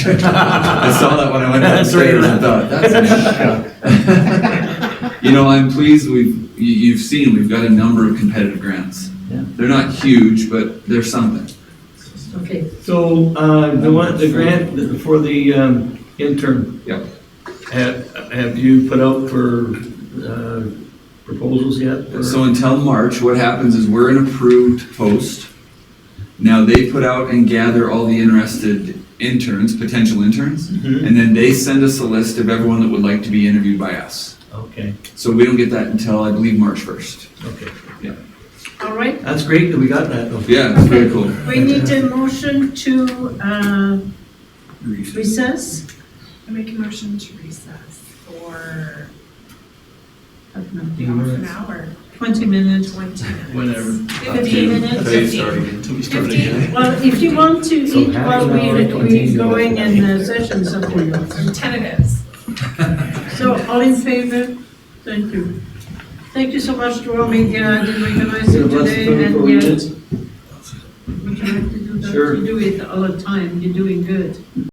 I saw that when I went That's right. downstairs and thought, that's an You know, I'm pleased we've, you, you've seen, we've got a number of competitive grants. Yeah. They're not huge, but they're something. Okay, So, uh, the one, the grant for the, um, intern? Yep. Have, have you put out for, uh, proposals yet? or- So until March, what happens is we're an approved post. Now they put out and gather all the interested interns, potential interns, Mhm. and then they send us a list of everyone that would like to be interviewed by us. Okay, So we don't get that until, I believe, March first. okay. all right. That's great that we got that though. Yeah, it's very cool. We need a motion to uh, recess. I make a motion to recess for Half an Do you half want an it? hour, hour. Twenty minutes, twenty minutes. Whenever. fifteen minutes. Fifteen, Well, if you want to So eat half while an hour, we're, 20 we're minutes. going in uh, the session, something else. I'm tentative. So all in favor? Thank you. Thank you so much to all media. I didn't recognize you Yeah, that's today very and cool. yet would you like to do that? Sure. You do it all the time. You're doing good.